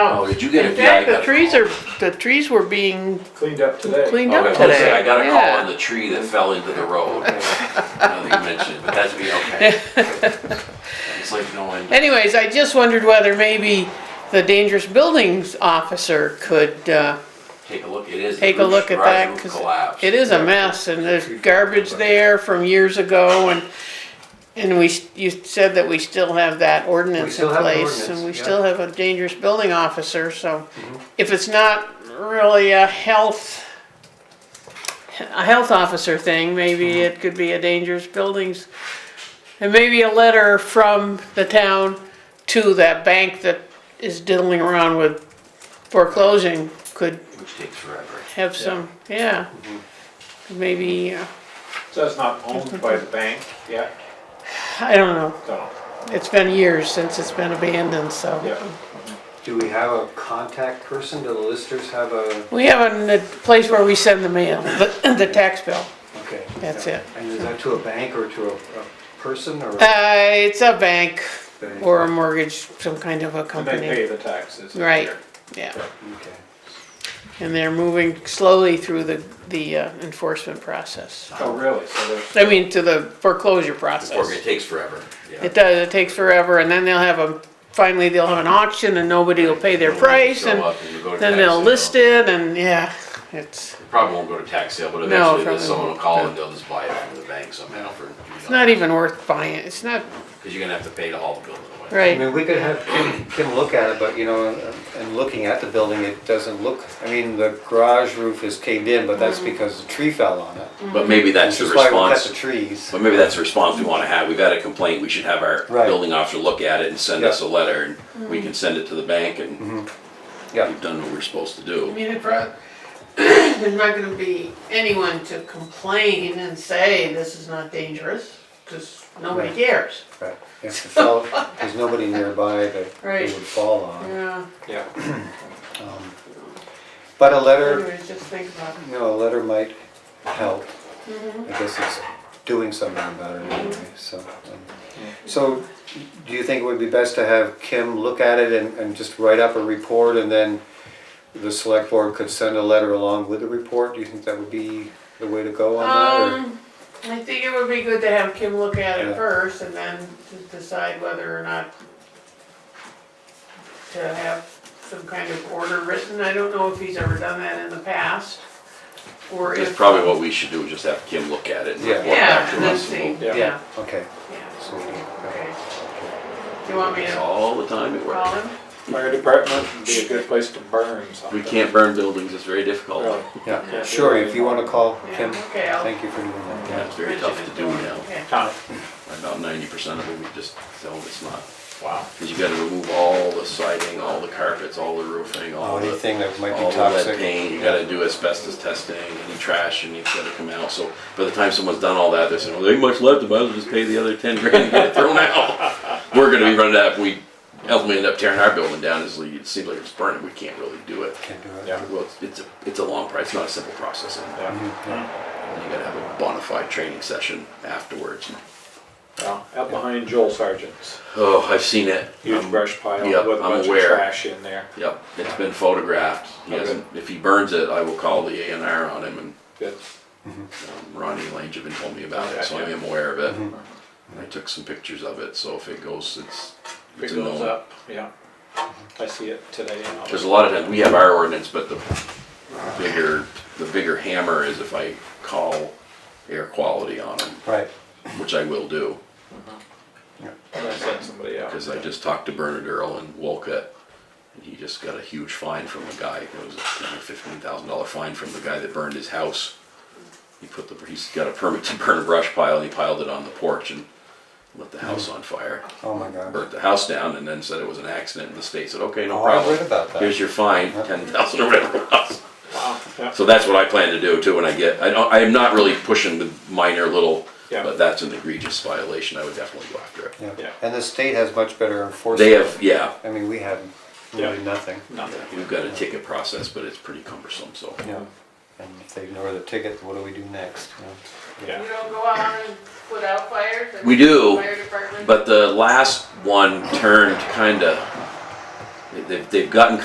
Oh, did you get a? In fact, yeah, I the got a trees call. are, the trees were being cleaned up today. cleaned Oh, up that's what I today. said, I got a call Yeah. on the tree that fell into the road. Now that you mentioned, it, but that's be okay. It's like no one. Anyways, I just wondered whether maybe the dangerous buildings officer could, uh, Take a look, it is. the take a roof- look at garage that, roof cause collapsed. it is a mess, and there's garbage there from years ago, and, and we, s- you said that we still have that ordinance in still have the place, and ordinance, we yeah. Mm-hmm. still have a dangerous building officer, so if it's not really a health, a health officer thing, maybe Mm-hmm. it could be a dangerous buildings, and maybe a letter from the town to that bank that is diddling around with foreclosing could Which takes forever. have some, yeah. Maybe, uh, So it's not owned by the bank yet? I don't know, No, it's been years since it's been abandoned, so. yeah. Do we have a contact person? Do the listers have a, We have a n- place where we send the mail, the the tax bill. okay. That's it. And is that to a bank or to a, a person or? Uh, it's a bank Bank. or a mortgage, some kind of a And they company, pay the taxes. every Right. year. yeah. Okay. And they're moving slowly through the, the uh, enforcement process. Oh, really? So there's, I mean, to the foreclosure Before, it process. takes forever, yeah. It does, it takes forever, and then they'll have a, finally they'll have an auction and nobody will pay their When you price show and up and you go to Then tax they'll sale. list it and, yeah, it's, It Probably won't go to tax sale, but No, eventually probably someone will won't. call and they'll just buy it from the bank somehow for. it's not even worth buying, it's not, Cause you're gonna have to pay to haul the building away. I right, mean, we could have Kim, Kim look at it, but you know, and looking at the building, it doesn't look, I mean, the garage roof is caved in, but that's because the tree fell on it. But maybe that's the Which is why we cut response, the trees. but maybe that's the response we wanna have. We've had a complaint, we should have our Right. building officer look at it and send Yeah. Mm-hmm. us a letter and we can send it to the bank and Yeah, we've done what we're supposed to I do. mean, it prob- there's not gonna be anyone to complain and say this is not dangerous, cause nobody Right. cares. right. If it fell, there's nobody nearby that Right. it would fall on. Yeah, yeah. Um, But a letter anyways, just think about it. You know, a letter might help. I guess it's doing something about it anyway, so. um, So, do you think it would be best to have Kim look at it and, and just write up a report and then the select board could send a letter along with the report? Do you think that would be the way to go on that, Um, I think it would be good to have Kim look at it Yeah. first and then to decide whether or not to have some kind of order written, I don't know if he's ever done that in the past, or if. That's probably what we should do, just have Kim look at it and Yeah. report back Yeah, to and then us. see, Yeah. yeah, or? Okay, yeah, so, okay. okay. Do you want me to All the time at call work. him? Fire department would be a good place to burn something. We can't burn buildings, it's very difficult. Really. yeah, sure, if you wanna call Yeah, Kim, okay, I'll. thank you for doing that, Yeah, yeah. it's very tough to do now. Okay. Tom, About ninety percent of it, we just tell them it's not. wow. Cause you gotta remove all the siding, all the carpets, all the roofing, all the. Oh, Anything that might be all the lead toxic. paint, you gotta do asbestos testing, any trash, and it's gotta come out, so by the time someone's done all that, they're saying, well, there ain't much left, I might as well just pay the other ten grand and get it thrown out. We're gonna be running out, if we ultimately end up tearing our building down, it's like, it seems like it's burning, we can't really do it. Can't do it. Yeah. Well, it's- it's a, it's a long process, it's not a simple process, and you Yeah. gotta have a bona fide training session afterwards. Well, Out behind Joel Sargent's Oh, I've seen it. huge Um, brush pile yep, with a I'm bunch of aware. trash in there. Yep, it's been photographed. He Okay. hasn't, if he burns it, I will call the A and R on him and Good. um, Ronnie Lange have been told me about it, so I Okay, yeah. am aware of it. I took some pictures of it, so if it goes, it's, If it's It a goes no. up, yeah. I see it today. and I'll- There's a lot of times, we have our ordinance, but the bigger, the bigger hammer is if I call air quality on them, Right, which I will do. I'm gonna send somebody out. Cause I just talked to Bernard Earl in Wolcott, and he just got a huge fine from a guy, it was a ten or fifteen thousand dollar fine from the guy that burned his house. He put the, he's got a permit to burn a brush pile, and he piled it on the porch and lit the house on fire. oh my god. Burnt the house down and then said it was an accident, and the state said, okay, no Oh, I read problem. about that. Here's your fine, ten thousand or whatever it was. Wow, yeah. So that's what I plan to do too, when I get, I don't, I am not really pushing the minor little, Yeah. but that's an egregious violation, I would definitely go after it. Yeah, Yeah. and the state has much better enforcement. They have, yeah, I mean, we have really Yeah. nothing. Nothing. We've got a ticket process, but it's pretty cumbersome, so. Yeah. And if they ignore the ticket, what do we do next? you know? Yeah. You don't go out and put out fires? We do, Fire department? But the last one turned kinda, they- they've, they've gotten